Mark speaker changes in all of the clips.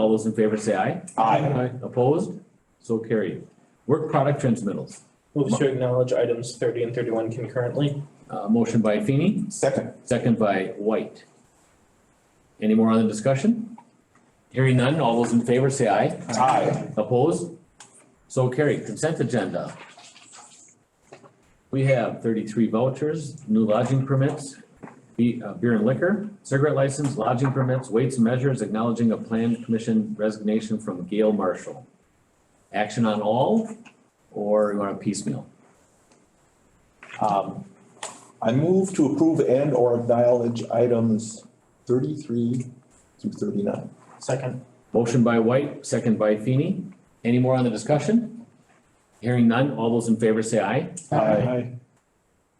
Speaker 1: All those in favor say aye.
Speaker 2: Aye.
Speaker 1: Opposed? So carried. Work product transmittals.
Speaker 3: Move to acknowledge items thirty and thirty-one concurrently.
Speaker 1: Uh, motion by Feeny,
Speaker 2: Second.
Speaker 1: second by White. Any more on the discussion? Hearing none, all those in favor say aye.
Speaker 2: Aye.
Speaker 1: Opposed? So carried. Consent agenda. We have thirty-three vouchers, new lodging permits, be- uh, beer and liquor, cigarette license, lodging permits, weights and measures, acknowledging a planned commission resignation from Gail Marshall. Action on all, or you want a piecemeal?
Speaker 2: Um, I move to approve and or acknowledge items thirty-three through thirty-nine.
Speaker 3: Second.
Speaker 1: Motion by White, second by Feeny. Any more on the discussion? Hearing none, all those in favor say aye.
Speaker 2: Aye.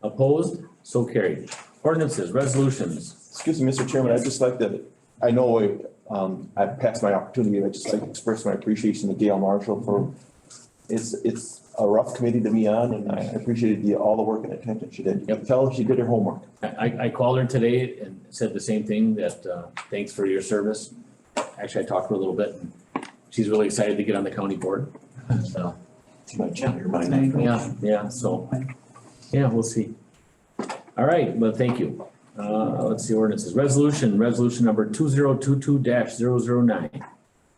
Speaker 1: Opposed? So carried. Ordinances, resolutions.
Speaker 2: Excuse me, Mr. Chairman, I'd just like to, I know, um, I've passed my opportunity, I'd just like to express my appreciation to Gail Marshall for, it's, it's a rough committee to be on, and I appreciated the, all the work and attention she did. You can
Speaker 1: Yep.
Speaker 2: tell she did her homework.
Speaker 1: I- I, I called her today and said the same thing, that, uh, thanks for your service. Actually, I talked to her a little bit. and She's really excited to get on the county board. So,
Speaker 2: She might change her mind.
Speaker 1: yeah, yeah, so, yeah, we'll see. All right, well, thank you. Uh, let's see ordinances. Resolution, resolution number two zero two two 9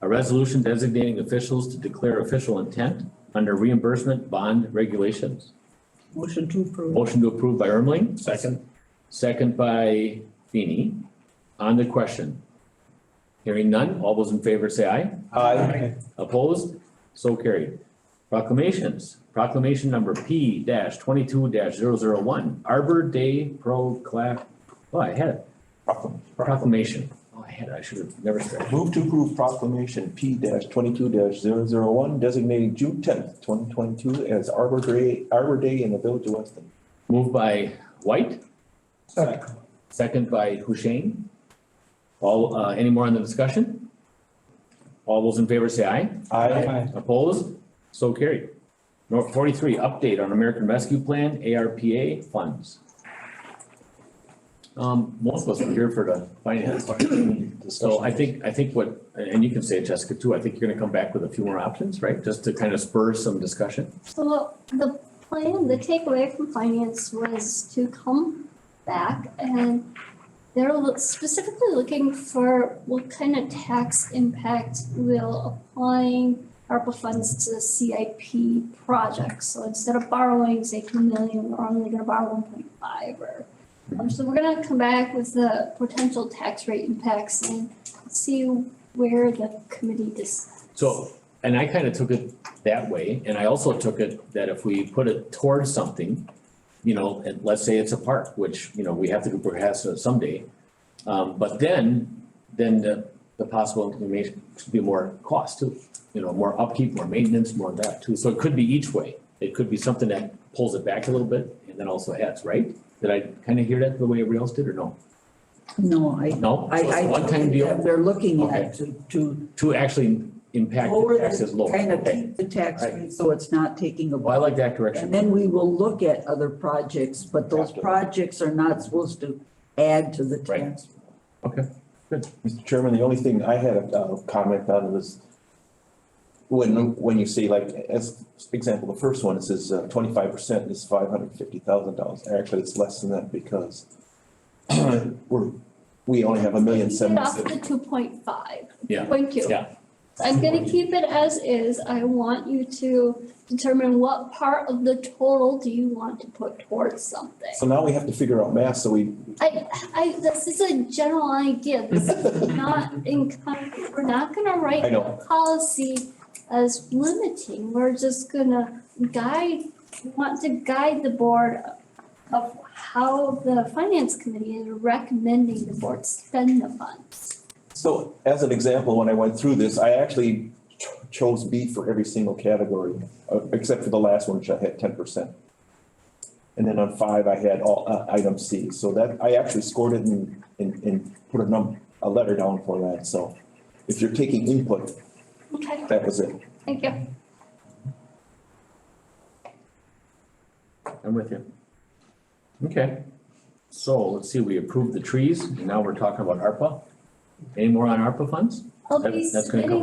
Speaker 1: A resolution designating officials to declare official intent under reimbursement bond regulations.
Speaker 4: Motion to approve.
Speaker 1: Motion to approve by Ermling?
Speaker 3: Second.
Speaker 1: Second by Feeny. On the question. Hearing none, all those in favor say aye.
Speaker 2: Aye.
Speaker 1: Opposed? So carried. Proclamations. Proclamation number P twenty-two one Arbor Day Procla- oh, I had it.
Speaker 2: Proclam-
Speaker 1: Proclamation. Oh, I had it. I should have never started.
Speaker 2: Move to approve proclamation P twenty-two one designating June tenth, twenty twenty-two as Arbor Day, Arbor Day in the Village of Weston.
Speaker 1: Moved by White. Second by Hushain. All, uh, any more on the discussion? All those in favor say aye.
Speaker 2: Aye.
Speaker 1: Opposed? So carried. Number forty-three, update on American Rescue Plan, ARPA funds. Um, most of us were here for the finance part. So I think, I think what, and you can say it, Jessica, too, I think you're gonna come back with a few more options, right? Just to kind of spur some discussion.
Speaker 5: So the plan, the takeaway from finance was to come back and they're loo- specifically looking for what kind of tax impact will applying ARPA funds to CIP projects. So instead of borrowing, say, two million, we're only gonna borrow one point five or. um, so we're gonna come back with the potential tax rate impacts and see where the committee decides.
Speaker 1: So, and I kind of took it that way, and I also took it that if we put it towards something, you know, and let's say it's a park, which, you know, we have to do perhaps someday. Um, but then, then the, the possible, it may be more cost too, you know, more upkeep, more maintenance, more of that too. So it could be each way. It could be something that pulls it back a little bit and then also adds, right? Did I kind of hear that the way everybody else did or no?
Speaker 4: No, I,
Speaker 1: No?
Speaker 4: I,
Speaker 1: So it's
Speaker 4: I.
Speaker 1: a One-time
Speaker 4: think that
Speaker 1: deal
Speaker 4: They're looking at to, to
Speaker 1: to actually impact
Speaker 4: lower
Speaker 1: the
Speaker 4: the,
Speaker 1: taxes lower.
Speaker 4: kind of
Speaker 1: Okay.
Speaker 4: keep the tax
Speaker 1: Right.
Speaker 4: rate, so it's not taking a.
Speaker 1: Well, I like that correction.
Speaker 4: And then we will look at other projects, but those projects are not supposed to add to the
Speaker 1: Right.
Speaker 4: tax.
Speaker 2: Mr. Chairman, the only thing I had a comment on was when, when you say like, as example, the first one, it says uh, twenty-five percent is five hundred fifty thousand dollars. Actually, it's less than that because we're, we only have a million
Speaker 5: Get
Speaker 2: seven.
Speaker 5: off the two point five.
Speaker 1: Yeah,
Speaker 5: Thank you.
Speaker 1: yeah.
Speaker 5: I'm gonna keep it as is. I want you to determine what part of the total do you want to put towards something.
Speaker 2: So now we have to figure out math, so we,
Speaker 5: I, I, this is a general idea. This is not in, con- we're not gonna write
Speaker 2: I know.
Speaker 5: a policy as limiting. We're just gonna guide, we want to guide the board of how the finance committee is recommending the board spend the funds.
Speaker 2: so as an example, when I went through this, I actually ch- chose B for every single category, uh, except for the last one, which I had ten percent. And then on five, I had all, uh, item C, so that, I actually scored it and, and, and put a num, a letter down for that, so. If you're taking input,
Speaker 5: Okay,
Speaker 2: that was it.
Speaker 5: thank you.
Speaker 1: I'm with you. Okay, so let's see, we approved the trees, and now we're talking about ARPA. Any more on ARPA funds?
Speaker 5: I'll
Speaker 1: That-
Speaker 5: be
Speaker 1: that's gonna come
Speaker 5: submitting